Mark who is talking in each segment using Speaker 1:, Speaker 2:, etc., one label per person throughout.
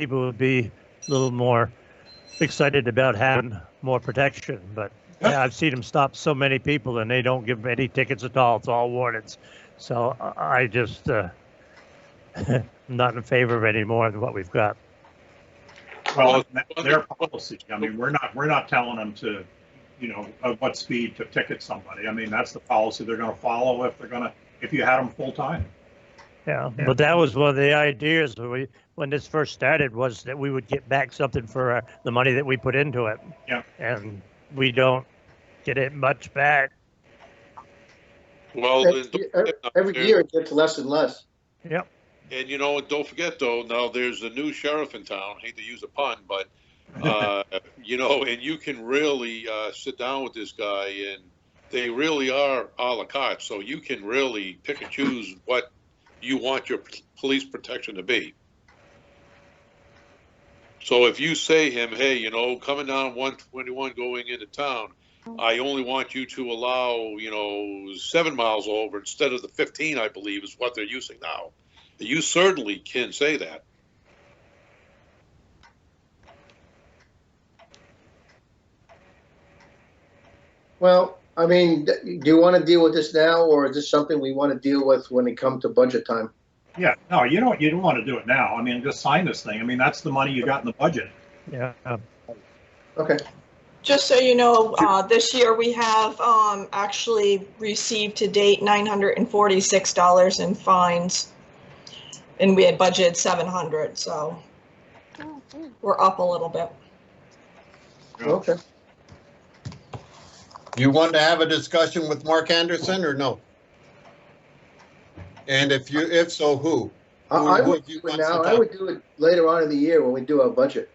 Speaker 1: people would be a little more excited about having more protection. But yeah, I've seen them stop so many people and they don't give any tickets at all. It's all warnings. So I I just uh, not in favor of any more than what we've got.
Speaker 2: Well, it's their policy. I mean, we're not, we're not telling them to, you know, at what speed to ticket somebody. I mean, that's the policy they're gonna follow if they're gonna, if you had them full time.
Speaker 1: Yeah, but that was one of the ideas when we when this first started was that we would get back something for uh, the money that we put into it.
Speaker 2: Yeah.
Speaker 1: And we don't get it much back.
Speaker 3: Well,
Speaker 4: Every
Speaker 3: and don't
Speaker 4: year-
Speaker 3: forget now,
Speaker 4: every
Speaker 3: there-
Speaker 4: year it gets less and less.
Speaker 3: And you know, don't forget though, now there's a new sheriff in town. Hate to use a pun, but uh, you know, and you can really uh, sit down with this guy, and they really are a la carte. So you can really pick and choose what you want your p- police protection to be. So if you say him, hey, you know, coming down 121 going into town, I only want you to allow, you know, seven miles over instead of the 15, I believe, is what they're using now. You certainly can say that.
Speaker 4: Well, I mean, th- do you want to deal with this now, or is this something we want to deal with when it comes to budget time?
Speaker 2: Yeah, no, you don't, you don't want to do it now. I mean, just sign this thing. I mean, that's the money you got in the budget.
Speaker 1: Yeah.
Speaker 4: Okay,
Speaker 5: Just so you know, uh, this year we have, um, actually received to date nine hundred and forty-six dollars in fines. And we had budgeted seven hundred, so we're up a little bit.
Speaker 4: okay.
Speaker 6: You want to have a discussion with Mark Anderson or no? And if you, if so, who?
Speaker 4: I, I
Speaker 6: Who
Speaker 4: would
Speaker 6: you
Speaker 4: do it
Speaker 6: want to
Speaker 4: now, I
Speaker 6: talk-
Speaker 4: would do it later on in the year when we do our budget.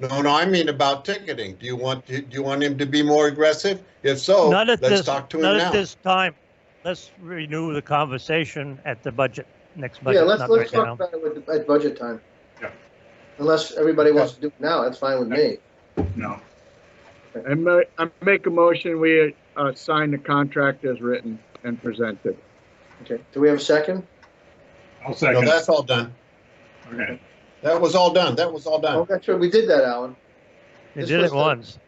Speaker 6: No, no, I mean about ticketing. Do you want, do you want him to be more aggressive? If so,
Speaker 1: not at
Speaker 6: Oh, let's
Speaker 1: this.
Speaker 6: talk to
Speaker 1: not
Speaker 6: him
Speaker 1: at
Speaker 6: now.
Speaker 1: this time. Let's renew the conversation at the budget next budget.
Speaker 4: Yeah, let's,
Speaker 1: not
Speaker 4: let's
Speaker 1: right
Speaker 4: talk
Speaker 1: now.
Speaker 4: about it with, at budget time.
Speaker 2: Yeah.
Speaker 4: Unless everybody wants to do it now, that's fine with me.
Speaker 2: No.
Speaker 7: I ma- I make a motion, we uh, sign the contract as written and presented.
Speaker 4: Okay, do we have a second?
Speaker 2: I'll
Speaker 6: No,
Speaker 2: second.
Speaker 6: that's all done.
Speaker 2: Okay.
Speaker 6: That was all done. That was all
Speaker 4: Oh,
Speaker 6: done.
Speaker 4: that's right, we did that, Alan.
Speaker 1: You
Speaker 4: this
Speaker 1: did it
Speaker 4: was the-
Speaker 1: once.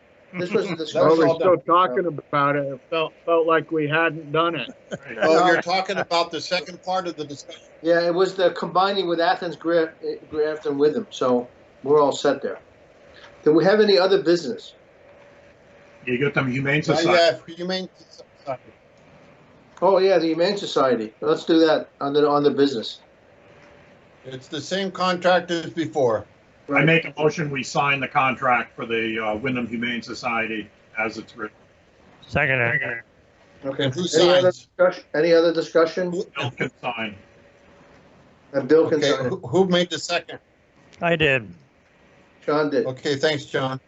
Speaker 4: This was the
Speaker 6: That was
Speaker 7: Well,
Speaker 4: discussion.
Speaker 7: we're
Speaker 6: all
Speaker 7: still
Speaker 6: done.
Speaker 7: talking about it, it felt, felt like we hadn't done it.
Speaker 2: Right.
Speaker 6: Oh, you're talking about the second part of the discussion.
Speaker 4: Yeah, it was the combining with Athens Graf- eh, Grafton with them, so we're all set there. Do we have any other business?
Speaker 2: You get them Humane
Speaker 6: Uh,
Speaker 2: Society.
Speaker 6: Yeah, Humane Society.
Speaker 4: Oh, yeah, the Humane Society. Let's do that on the, on the business.
Speaker 6: It's the same contract as before.
Speaker 2: I make a motion, we sign the contract for the uh, Wyndham Humane Society as it's written.
Speaker 1: Second. uh,
Speaker 4: Okay.
Speaker 6: And who
Speaker 4: Any other
Speaker 6: signs?
Speaker 4: discussion? Any other discussion?
Speaker 6: Who-
Speaker 2: Bill can sign.
Speaker 4: And Bill can
Speaker 6: Okay,
Speaker 4: sign it.
Speaker 6: who- who made the second?
Speaker 1: I did.
Speaker 4: Sean did.
Speaker 6: Okay, thanks, John.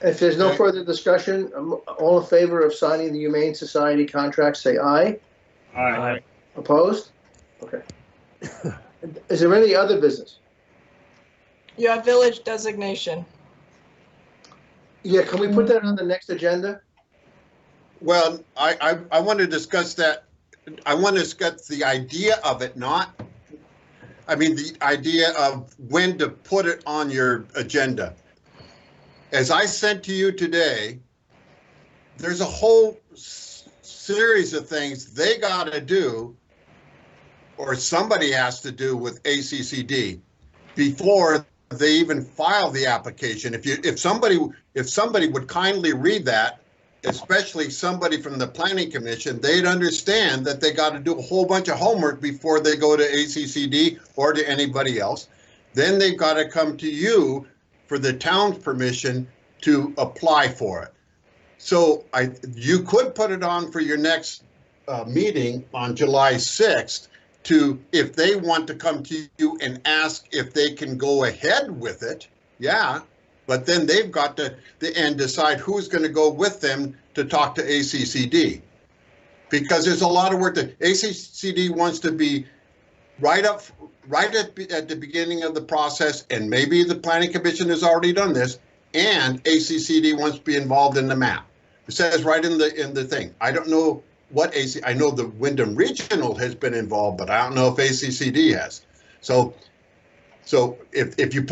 Speaker 4: If there's no
Speaker 6: Okay.
Speaker 4: further discussion, um, all in favor of signing the Humane Society contract, say aye.
Speaker 2: All right.
Speaker 1: I-
Speaker 4: Opposed? Okay. Is there any other business?
Speaker 5: You have village designation.
Speaker 4: Yeah, can we put that on the next agenda?
Speaker 6: Well, I, I, I want to discuss that, I want to discuss the idea of it, not, I mean, the idea of when to put it on your agenda. As I sent to you today, there's a whole s- series of things they got to do, or somebody has to do with ACCD before they even file the application. If you, if somebody, if somebody would kindly read that, especially somebody from the planning commission, they'd understand that they got to do a whole bunch of homework before they go to ACCD or to anybody else. Then they've got to come to you for the town's permission to apply for it. So I, you could put it on for your next uh, meeting on July 6th to, if they want to come to you and ask if they can go ahead with it, yeah. But then they've got to, the- and decide who's going to go with them to talk to ACCD. Because there's a lot of work that ACCD wants to be right up, right at, be- at the beginning of the process, and maybe the planning commission has already done this, and ACCD wants to be involved in the map. It says right in the, in the thing. I don't know what AC, I know the Wyndham Regional has been involved, but I don't know if ACCD has. So So if, if you